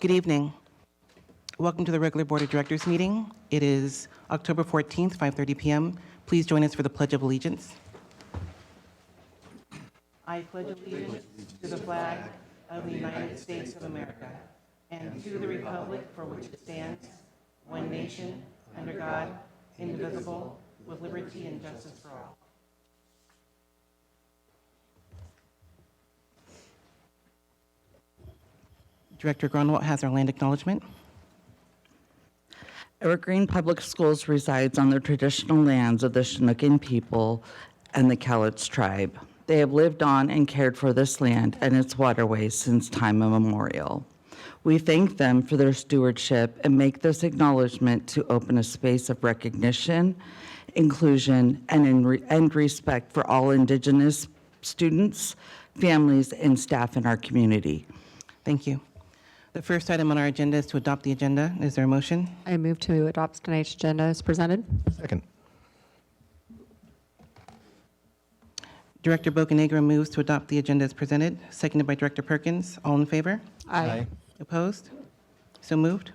Good evening. Welcome to the regular Board of Directors meeting. It is October 14th, 5:30 PM. Please join us for the Pledge of Allegiance. I pledge allegiance to the flag of the United States of America and to the republic for which it stands, one nation, under God, indivisible, with liberty and justice for all. Director Grunwald has our land acknowledgement. Evergreen Public Schools resides on the traditional lands of the Chinookan people and the Cowlitz tribe. They have lived on and cared for this land and its waterways since time immemorial. We thank them for their stewardship and make this acknowledgement to open a space of recognition, inclusion, and, in re- and respect for all Indigenous students, families, and staff in our community. Thank you. The first item on our agenda is to adopt the agenda. Is there a motion? I move to adopt tonight's agenda as presented. Second. Director Bocanegra moves to adopt the agenda as presented, seconded by Director Perkins. All in favor? Aye. Opposed? So moved.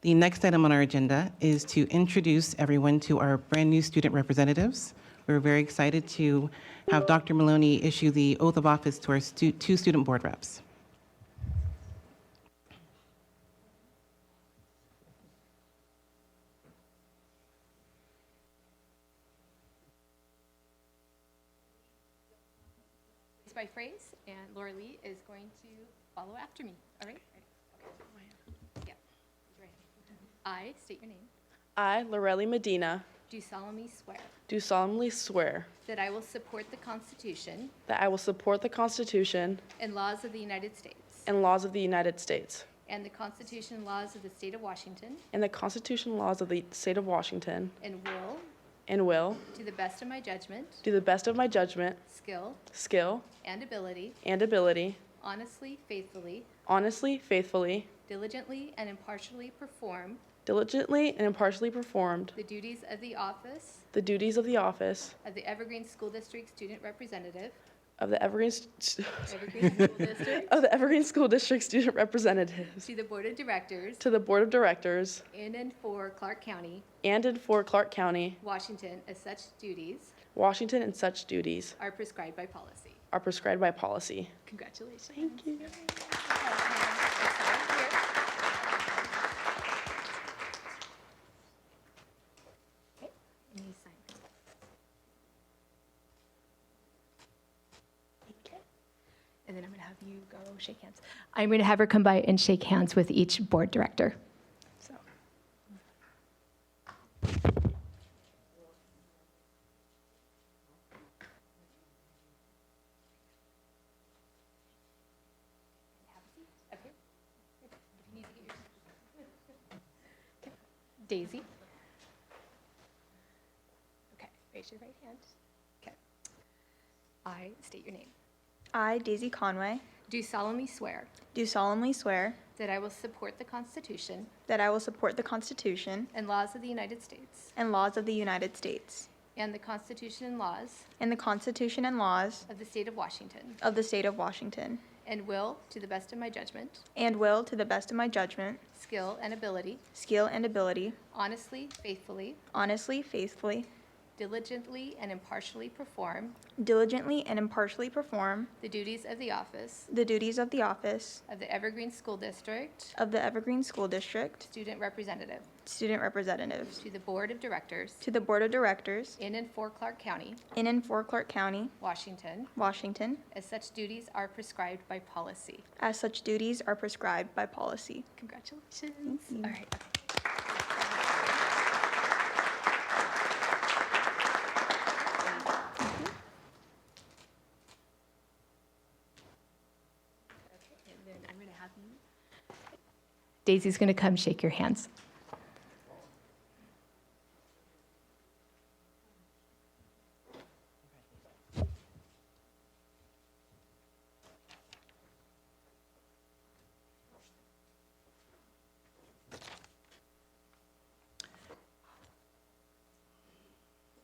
The next item on our agenda is to introduce everyone to our brand-new student representatives. We're very excited to have Dr. Maloney issue the oath of office to our stu- two student board reps. phrase by phrase, and Laura Lee is going to follow after me. All right? Yeah. I state your name. I, Lorelli Medina, Do solemnly swear do solemnly swear that I will support the Constitution that I will support the Constitution and laws of the United States and laws of the United States and the Constitution and laws of the State of Washington and the Constitution and laws of the State of Washington, and will, and will, to the best of my judgment, do the best of my judgment, skill, skill, and ability, and ability, honestly, faithfully, honestly, faithfully, diligently, and impartially perform diligently, and impartially performed the duties of the office the duties of the office of the Evergreen School District Student Representative, of the Evergreen, st- Evergreen School District, of the Evergreen School District Student Representatives To the Board of Directors to the Board of Directors in and for Clark County, and in for Clark County, Washington, as such duties Washington, and such duties are prescribed by policy. are prescribed by policy. Congratulations. Thank you. Okay, and you sign this. And then I'm going to have you go shake hands. I'm going to have her come by and shake hands with each board director. So. Daisy. Okay, raise your right hand. Okay. I state your name. I, Daisy Conway, Do solemnly swear do solemnly swear that I will support the Constitution that I will support the Constitution and laws of the United States and laws of the United States and the Constitution and laws and the Constitution and laws of the State of Washington, of the State of Washington, and will, to the best of my judgment, and will, to the best of my judgment, skill, and ability, skill, and ability, honestly, faithfully, honestly, faithfully, diligently, and impartially perform diligently, and impartially perform the duties of the office the duties of the office of the Evergreen School District of the Evergreen School District Student Representative Student Representatives to the Board of Directors to the Board of Directors in and for Clark County, in and for Clark County, Washington, Washington, as such duties are prescribed by policy. as such duties are prescribed by policy. Congratulations. All right. Daisy's going to come shake your hands.